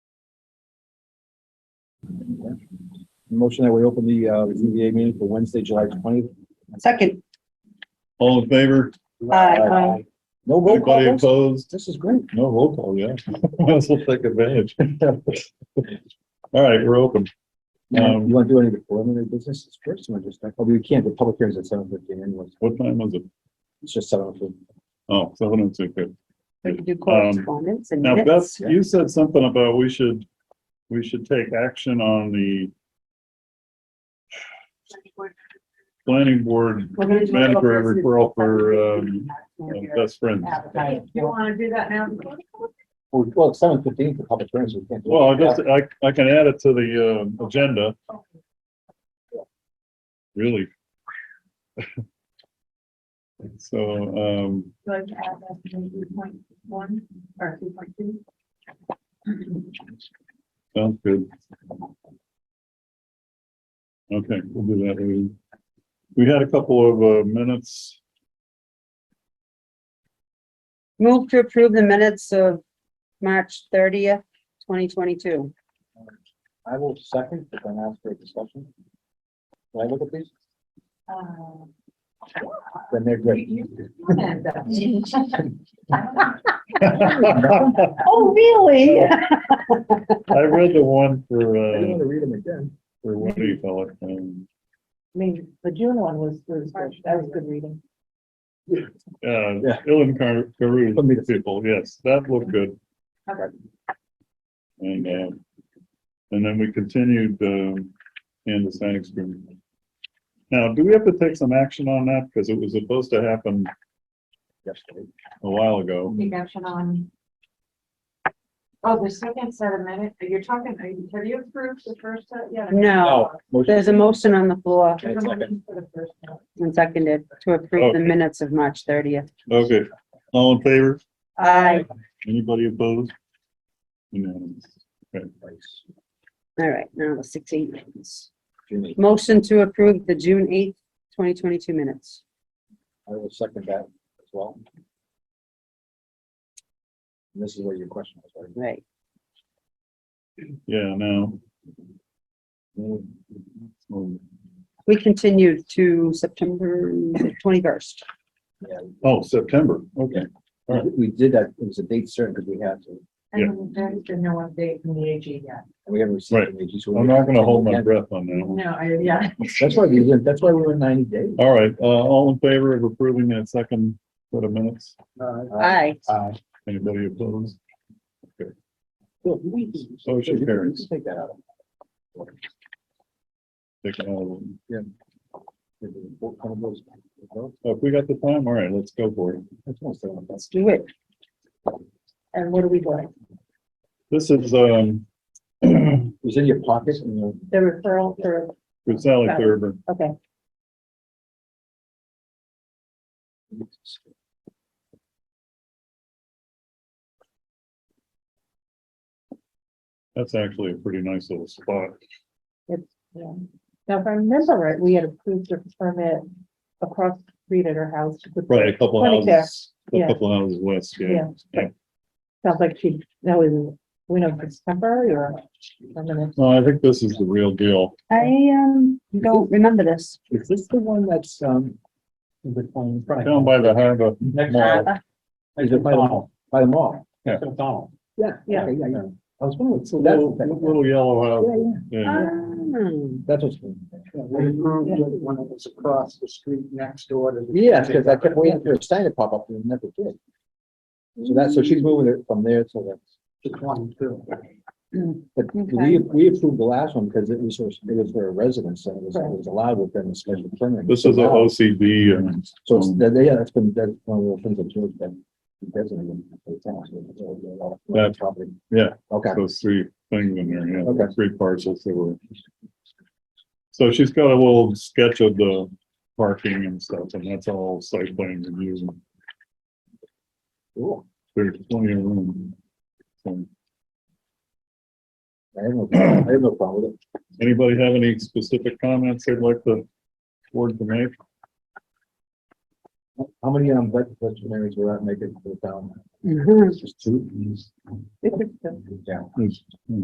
Motion that we open the, uh, the ZBA meeting for Wednesday, July twentieth. Second, All in favor? Aye. No roll Anybody call. votes? opposed? This is great. No roll call, yeah. Might as well take advantage. All right, we're open. Um, you want to do any of the preliminary business first? You want to just, oh, we can't, the public hearings at seven fifteen anyways. What time was it? It's just seven fifteen. Oh, seven and six. good. we can do correspondence and Um, Now, Beth, minutes. you said something about we should, we should take action on the planning board uh, We're gonna do a little mandatory business. referral for, um, um, best friends. Appetite. You wanna do that now? Well, seven fifteen for public hearings, we can't. do it. Well, I just, I, I can add it to the, um, agenda. Really. So, um, Go ahead and add that to three point one or three point two. sounds good. Okay, we'll do that. later. We had a couple of, uh, minutes. Move to approve the minutes of March thirtieth, twenty twenty-two. I will second, if I'm asked for a discussion. Can I look at these? Uh, Then they're great. I Oh, really? read the one for, I didn't uh, want to read them again. for what do you call it? um, I mean, the June one was, was, good. that was good reading. Uh, Yeah. Ellen Car- Carew Let me just- people, yes, that looked good. Okay. And, um, and then we continued, um, in the sign agreement. Now, do we have to take some action on that? Because it was supposed to happen Yesterday. a while ago. Take action on. Oh, the second set of minutes, you're talking, are you- have you approved the first set yet? No, Oh, motion. there's a motion on the floor There's a motion for the first set. and seconded to approve the minutes of March thirtieth. Okay, all in favor? Aye. Anybody opposed? Unanimous. Nice. All right, now the six eight minutes. Jimmy, Motion to approve the June eighth, twenty twenty-two minutes. I will second that as well. And This is where your question was, right? Right. Yeah, now. Oh, We continued to September twenty-first. Oh, September, okay. We- We did that, it was a date certain because we had to, and And there's been no update from the AG yet. we haven't Right. received any. so we- I'm not gonna hold my breath on that one. No, I, yeah. That's why we, did- that's why we were ninety days. All right, uh, all in favor of approving that second set of minutes? Uh, Aye. Aye. Anybody opposed? Bill, you- you- Motion you- you carries. Take that out. Take it all of them. That's Oh, If we got the time, all right, let's go for it. one thing. Let's do it. And what are we doing? This is, um, for It was in your pocket and you. The referral for, Sally Thurber. okay, That's actually a pretty nice little spot. yeah. Now, if I remember right, we had approved a permit across the street at her house. with- Right, a couple Right there, houses, a yeah. couple houses west, yeah. Yeah. Sounds like she, that was, we know if it's temporary or permanent. No, I think this is the real deal. I, um, don't remember this. Is this the one that's, um? in The phone, right? Down by the harbor. Next mall. to- Is it by the mall? By the mall? Yeah. Donald. Yeah, Yeah. yeah, yeah, yeah. I was wondering. It's a little, little yellow house. Yeah, yeah. Yeah, Um, That's what's. We approved it when it was across the street next door to. the- Yeah, because I kept waiting for a sign to pop up and it never did. So that's, so she's moving it from there to To twenty-two. the, but Okay. we, we approved the last one because it was, her- it was her residence and it was, it was allowed within the special permit. this is a Now, OCD and So it's, that- yeah, that's been, that's one of the things that George been designated. for the town, so it's all a lot of- Yeah. Probably. Yeah. Okay. those three things in there, yeah, Okay. three parcels that were. So she's got a little sketch of the parking and stuff, and that's all site plan reviews. and Cool. There's plenty of room. So, I have no, I have no problem with it. Anybody have any specific comments they'd like the board to make? How many, um, vet- veterinarians will that make it to the town? mhm. Just two? It's just- Yeah. There's-